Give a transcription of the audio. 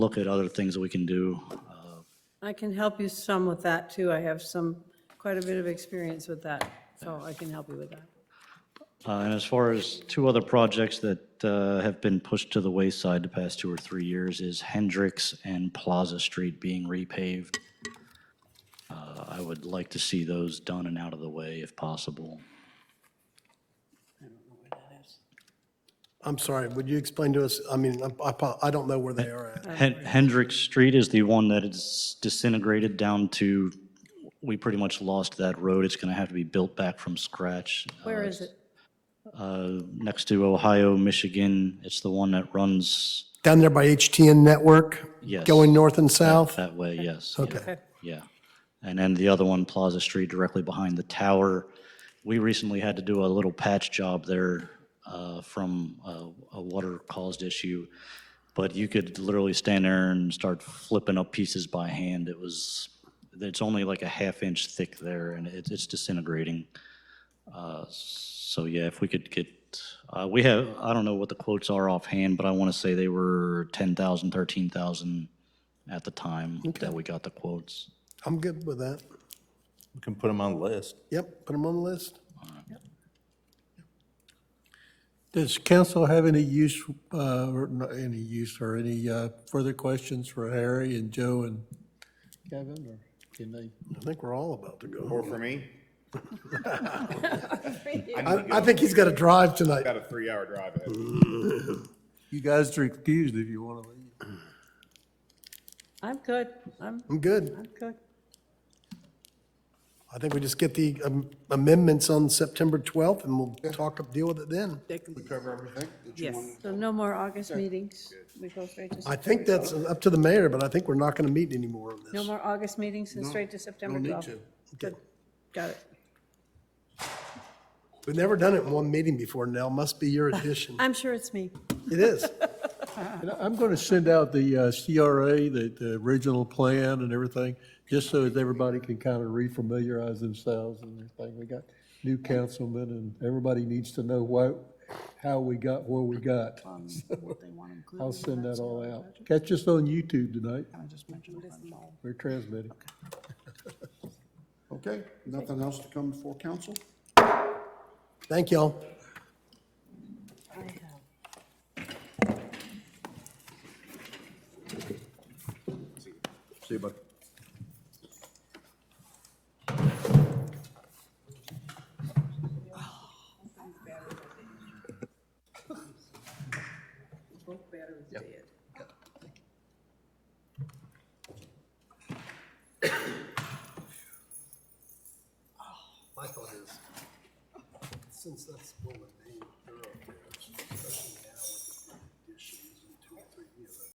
look at other things that we can do. Uh, I can help you some with that, too. I have some, quite a bit of experience with that, so I can help you with that. Uh, And as far as two other projects that uh, have been pushed to the wayside the past two or three years is Hendrix and Plaza Street being repaved. Uh, I would like to see those done and out of the way if possible. I'm sorry, would you explain to us, I mean, I- I, po- I don't know where they are at. Hen- Hendrix Street is the one that is disintegrated down to, we pretty much lost that road. It's going to have to be built back from scratch. Where is it? Uh, Next to Ohio, Michigan, it's the one that runs Down there by HTN Network? Yes. Going north and south? that way, yes. yeah. Okay. Yeah. And then the other one, Plaza Street, directly behind the tower. We recently had to do a little patch job there uh, from a- a water-caused issue. But you could literally stand there and start flipping up pieces by hand. It was, it's only like a half-inch thick there, and it- it's disintegrating. Uh, So yeah, if we could get, uh, we have, I don't know what the quotes are offhand, but I want to say they were 10,000, 13,000 at the time that we got the quotes. I'm good with that. We can put them on the list. Yep, put them on the list. Does council have any use, uh, or not any use, or any uh, further questions for Harry and Joe and Kevin, or can they? I think we're all about to go. Or for me, I, I think he's got to drive tonight. got a three-hour drive ahead. You guys are excused if you want to leave. I'm good. I'm, I'm good. I'm good. I think we just get the um, amendments on September 12th and we'll talk, deal with it then. Yes. So no more August meetings. We go straight to, I think that's up to the mayor, but I think we're not going to meet anymore on no this. more August meetings and straight to September 12th. Good. Got it. We've never done it in one meeting before, Nell. Must be your addition. I'm sure it's me. It is. And I- I'm going to send out the uh, CRA, the, the original plan and everything, just so that everybody can kind of refamiliarize themselves and everything. We got new councilmen, and everybody needs to know why, how we got where we got. I'll send that all out. Catch us on YouTube tonight. We're transmitting. Okay, nothing else to come before council? Thank y'all. See you, bud. My thought is, since that's woman, they're up there.